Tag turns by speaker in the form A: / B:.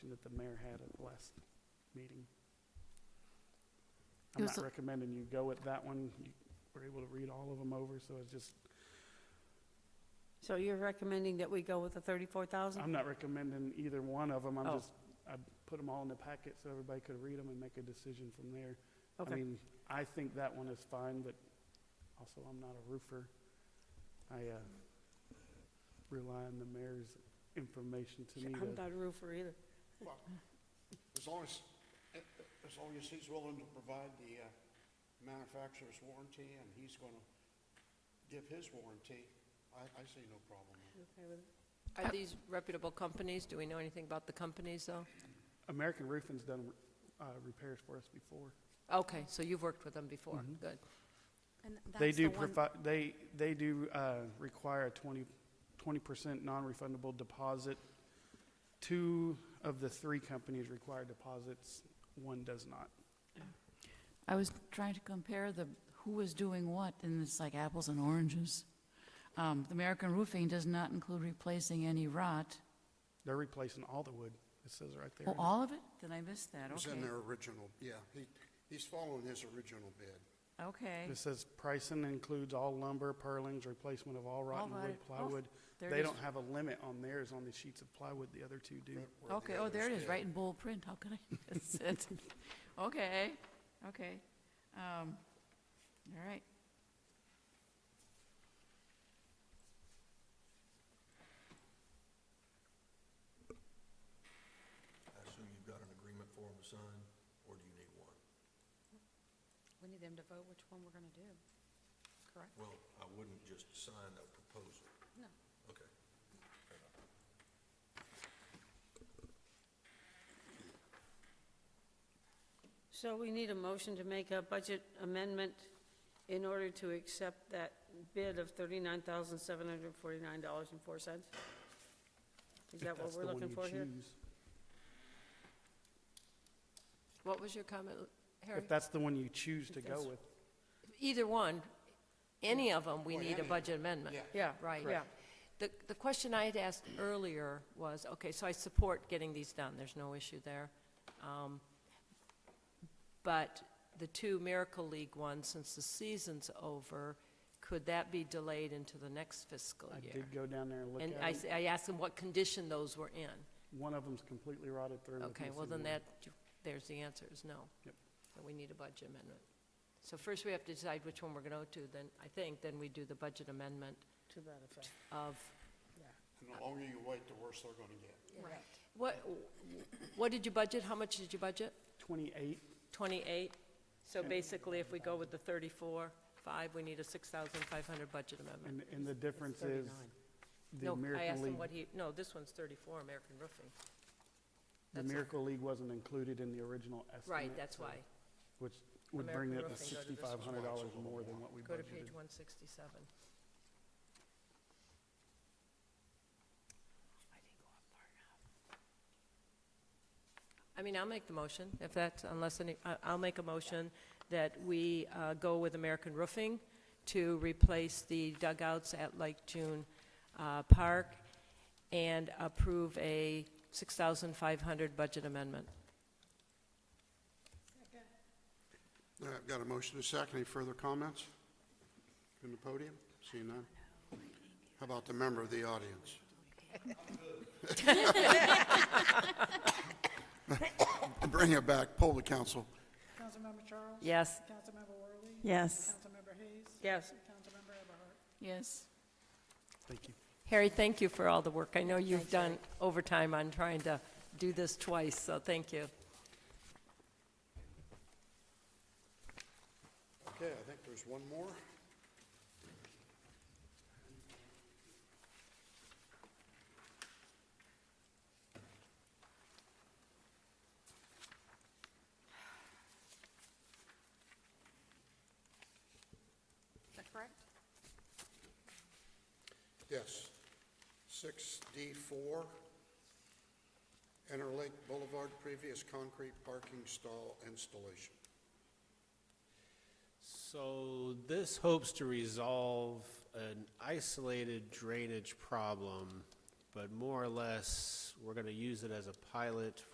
A: that the mayor had at the last meeting.
B: It
A: I'm
B: was
A: not
B: a-
A: recommending you go with that one. You were able to read all of them over, so it's just,
B: So you're recommending that we go with the thirty-four thousand?
A: I'm not recommending either one of them. I'm
B: Oh.
A: just, I put them all in the packet so everybody could read them and make a decision from there. I
B: Okay,
A: mean, I think that one is fine, but also I'm not a roofer. I, uh, rely on the mayor's information to me
B: I'm
A: to,
B: not a roofer either.
C: Well, as long as, as long as he's willing to provide the uh, manufacturer's warranty and he's going to give his warranty, I, I see no problem. with it.
B: Okay with it.
D: Are these reputable companies? Do we know anything about the companies, though?
A: American Roofing's done, uh, repairs for us before.
D: Okay, so you've worked with them before,
A: Mm-hmm.
D: good.
E: And
A: They
E: that's the
A: do
E: one,
A: provide, they, they do, uh, require a twenty, twenty percent non-refundable deposit. Two of the three companies require deposits, one does not.
F: I was trying to compare the, who was doing what, and it's like apples and oranges. Um, the American roofing does not include replacing any rot.
A: They're replacing all the wood, it says right there.
F: Oh, all of it? Then I missed that,
C: It was
F: okay.
C: in their original, yeah, he, he's following his original bid.
F: Okay,
A: It says pricing includes all lumber, purlings, replacement of all rotten wood,
F: rotted- oh,
A: plywood.
F: there it
A: They
F: is.
A: don't have a limit on theirs on the sheets of plywood, the other two do.
C: where the
F: okay, oh, there it
C: others
F: is,
C: bid.
F: right in bold print, how could I miss it? Okay, okay, um, all right.
G: I assume you've got an agreement for them to sign, or do you need one?
E: we need them to vote which one we're gonna do, correct?
G: Well, I wouldn't just sign a proposal.
E: No.
G: Okay. Fair enough.
B: So we need a motion to make a budget amendment in order to accept that bid of thirty-nine thousand, seven hundred and forty-nine dollars and four cents? Is
A: If
B: that what
A: that's
B: we're
A: the one
B: looking
A: you
B: for here?
A: choose-
D: What was your comment, Harry?
A: If that's the one you choose to go
B: that's-
A: with.
D: Either one, any of them, we need a budget amendment.
C: Yeah.
B: Yeah,
D: Right, yeah.
B: yeah.
D: The, the question I had asked earlier was, okay, so I support getting these done, there's no issue there. Um, But the two Miracle League ones, since the season's over, could that be delayed into the next fiscal
A: I
D: year?
A: did go down there and look
D: And
A: at
D: I,
A: it.
D: s- I asked them what condition those were in.
A: One of them's completely rotted through. with
D: Okay, well,
A: missing
D: then
A: wood.
D: that, there's the answer, is no.
A: Yep.
D: So we need a budget amendment. So first we have to decide which one we're going to go to, then, I think, then we do the budget amendment
B: To that effect.
D: of,
C: And the longer you wait, the worse they're going to get.
D: what, what did you budget, how much did you budget?
A: Twenty-eight,
D: 28? So basically, if we go with the 34, 5, we need a 6,500 budget amendment.
A: and, and the difference is the
D: No, I
A: American
D: asked him
A: League,
D: what he, no, this one's 34, American Roofing.
A: the
D: that's a-
A: Miracle League wasn't included in the original estimate.
D: Right, that's
A: so-
D: why.
A: Which would bring
D: American
A: it to
D: Roofing, go to this
A: sixty-five hundred dollars more than what we
D: Go to page
A: budgeted.
D: 167. I mean, I'll make the motion, if that's, unless any, I- I'll make a motion that we uh, go with American Roofing to replace the dugouts at Lake June uh, Park and approve a 6,500 budget amendment.
C: All right, I've got a motion to second. Any further comments from the podium? Seeing none? How about the member of the audience? Bring it back, poll the council.
H: Councilmember Charles?
D: Yes?
H: Councilmember Worley?
I: Yes.
H: Councilmember Hayes?
B: Yes.
H: Councilmember Everhart?
F: Yes.
A: Thank you.
D: Harry, thank you for all the work. I know you've done overtime on trying to do this twice, so thank you.
C: Okay, I think there's one more.
E: Is that correct?
C: Yes. Six D four, Interlake Boulevard, previous concrete parking stall installation.
J: So this hopes to resolve an isolated drainage problem, but more or less, we're going to use it as a pilot